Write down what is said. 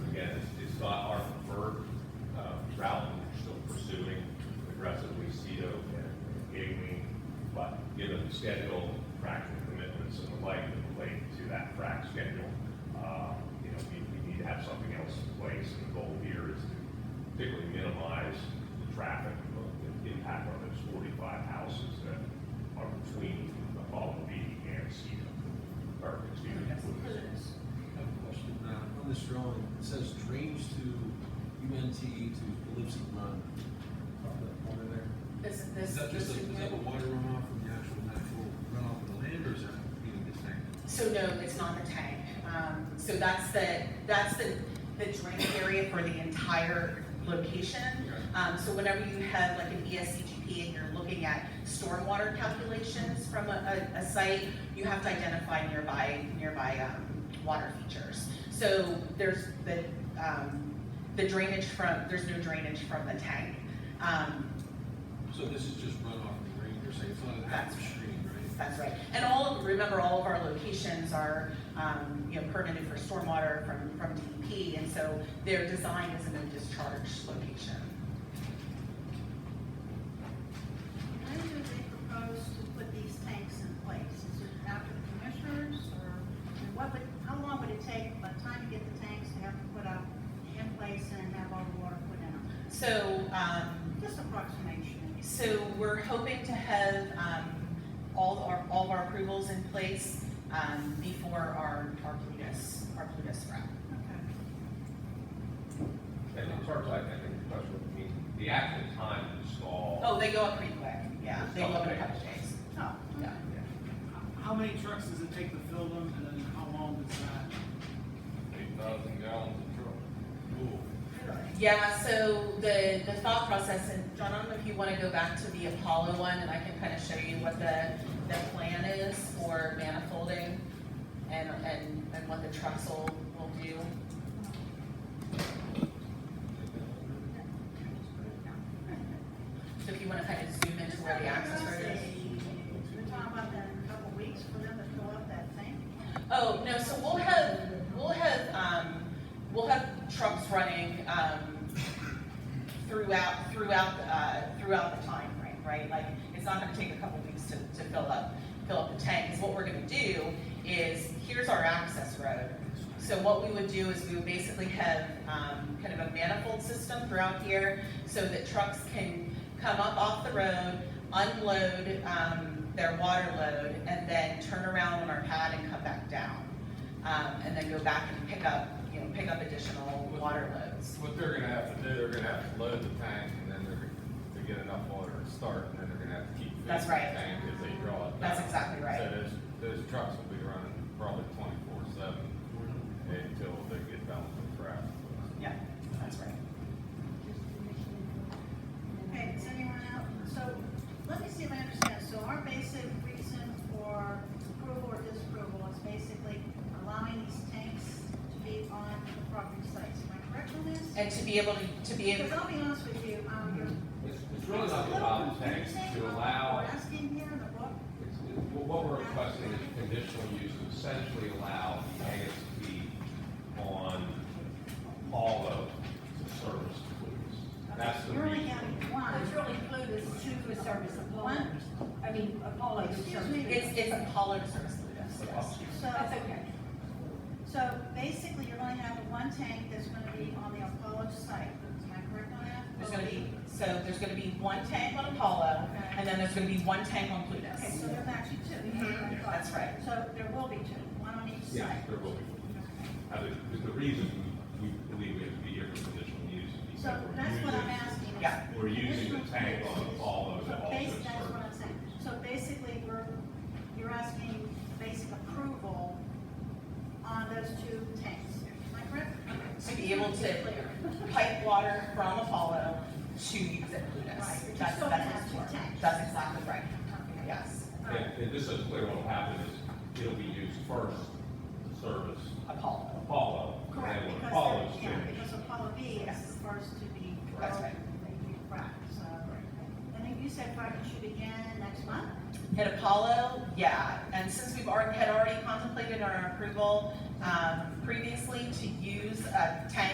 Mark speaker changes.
Speaker 1: uh, time schedule. Uh, You know, we, we need to have something else in place, and the goal here is to particularly minimize the traffic, uh, the impact on those forty-five houses that are between Apollo B and Cedar, or, excuse me, Lewis.
Speaker 2: I have a question, uh, on this drawing, it says drains to UNT to Calypso Run, up that corner there.
Speaker 3: This,
Speaker 2: Is
Speaker 3: this,
Speaker 2: that
Speaker 3: this
Speaker 2: just a,
Speaker 3: is
Speaker 2: is that a water runoff from the actual natural runoff of the land, or is that being the tank?
Speaker 3: So no, it's not the tank. Um, so that's the, that's the, the drain area for the entire location. Um, so whenever you have like an E ESCGP and you're looking at stormwater calculations from a, a, a site, you have to identify nearby, nearby, um, water features. So there's the, um, the drainage from, there's no drainage from the tank. Um,
Speaker 2: So this is just runoff of the rain, you're saying, it's not an
Speaker 3: That's-
Speaker 2: active stream, right?
Speaker 3: That's right. And all, of- remember, all of our locations are, um, you know, permitted for stormwater from, from DEP, and so they're designed as a no discharge location.
Speaker 4: When do they propose to put these tanks in place? Is it after the commissioners, or and what would, how long would it take by the time you get the tanks to have to put up in place and have all the water put in them?
Speaker 3: So, um,
Speaker 4: Just approximation.
Speaker 3: so we're hoping to have, um, all of our, all of our approvals in place, um, before our, our Plutus, our Plutus route.
Speaker 4: Okay.
Speaker 1: And in terms, I I think the question would be, the actual time to install.
Speaker 3: Oh, they go up pretty quick, yeah, they go up in a couple days,
Speaker 4: Oh,
Speaker 3: yeah.
Speaker 5: How many trucks does it take to fill them, and then how long does that?
Speaker 6: Eight thousand gallons of truck.
Speaker 2: Cool.
Speaker 3: Yeah, so the, the thought process, and John, I don't know if you wanna go back to the Apollo one, and I can kinda show you what the, the plan is for manifolding and, and, and what the trussel will do. So if you wanna kinda zoom into where the access road is.
Speaker 4: We're talking about that in a couple weeks for them to fill up that tank?
Speaker 3: Oh, no, so we'll have, we'll have, um, we'll have trucks running, um, throughout, throughout, uh, throughout the time frame, right? Like, it's not gonna take a couple weeks to, to fill up, fill up the tank, 'Cause what we're gonna do is, here's our access road. So what we would do is we would basically have, um, kind of a manifold system throughout here, so that trucks can come up off the road, unload, um, their water load, and then turn around on our pad and come back down. Um, and then go back and pick up, you know, pick up additional water loads.
Speaker 6: What they're gonna have to do, they're gonna have to load the tank and then they're, gonna- to get enough water to start, and then they're gonna have to keep. filling
Speaker 3: That's right.
Speaker 6: the Tank as they draw it.
Speaker 3: That's
Speaker 6: down.
Speaker 3: exactly right.
Speaker 6: So those, those trucks will be running probably twenty-four seven until they get done with the crap.
Speaker 3: Yeah, that's right.
Speaker 4: Okay, does anyone else, so, let me see if I understand, so our basic reason for approval or disapproval is basically allowing these tanks to be on the property sites, am I correct on this?
Speaker 3: And to be able to, to be able,
Speaker 4: Because I'll be honest with you, um.
Speaker 7: It's, it's really not to allow the tanks, it's to allow,
Speaker 4: We're asking here in the book, uh,
Speaker 7: it's, it- well, what we're requesting is conditional use to essentially allow the ASP on all of the service clues. That's the
Speaker 4: you're only
Speaker 7: reason.
Speaker 4: having one.
Speaker 8: It's really included to a service Apollo. I mean, Apollo.
Speaker 4: Excuse me.
Speaker 3: it's, it's a pollard service, Plutus, yes.
Speaker 4: So,
Speaker 8: That's uh, okay.
Speaker 4: so basically, you're gonna have one tank that's gonna be on the Apollo site, am I correct on that?
Speaker 3: There's gonna be, so there's gonna be one tank on Apollo, and then there's gonna be one tank on
Speaker 4: Okay,
Speaker 3: Plutus.
Speaker 4: so there's actually two.
Speaker 1: Mm-hmm.
Speaker 3: That's right.
Speaker 4: So there will be two, one on each side.
Speaker 7: Yeah, there will be.
Speaker 1: I think the- the reason we we believe we have to be here for conditional use is
Speaker 4: So
Speaker 1: because we're
Speaker 4: that's what I'm
Speaker 1: using,
Speaker 4: asking. is-
Speaker 3: Yeah.
Speaker 1: we're using the tank on all of
Speaker 4: So
Speaker 1: the, all
Speaker 4: bas-
Speaker 1: those
Speaker 4: That's what
Speaker 1: services.
Speaker 4: I'm saying. So basically, we're, you're asking basic approval on those two tanks. Am I correct?
Speaker 3: To be able to
Speaker 4: Clear.
Speaker 3: pipe water from Apollo to use at Plutus.
Speaker 4: Right, which is
Speaker 3: That's,
Speaker 4: still
Speaker 3: that's
Speaker 4: has
Speaker 3: what's
Speaker 4: two
Speaker 3: for.
Speaker 4: tanks.
Speaker 3: That's exactly right,
Speaker 4: Okay.
Speaker 3: yes,
Speaker 4: All right.
Speaker 7: And, and this is clear what'll happen is it'll be used first to service
Speaker 3: Apollo.
Speaker 7: Apollo. and then
Speaker 4: Correct,
Speaker 7: when
Speaker 4: because,
Speaker 7: Apollo's
Speaker 4: yeah,
Speaker 7: finished,
Speaker 4: because Apollo B is the first to be.
Speaker 3: That's right.
Speaker 4: Right, so, and then you said project should begin next month?
Speaker 3: At Apollo, yeah, and since we've already, had already contemplated our approval, um, previously to use a tank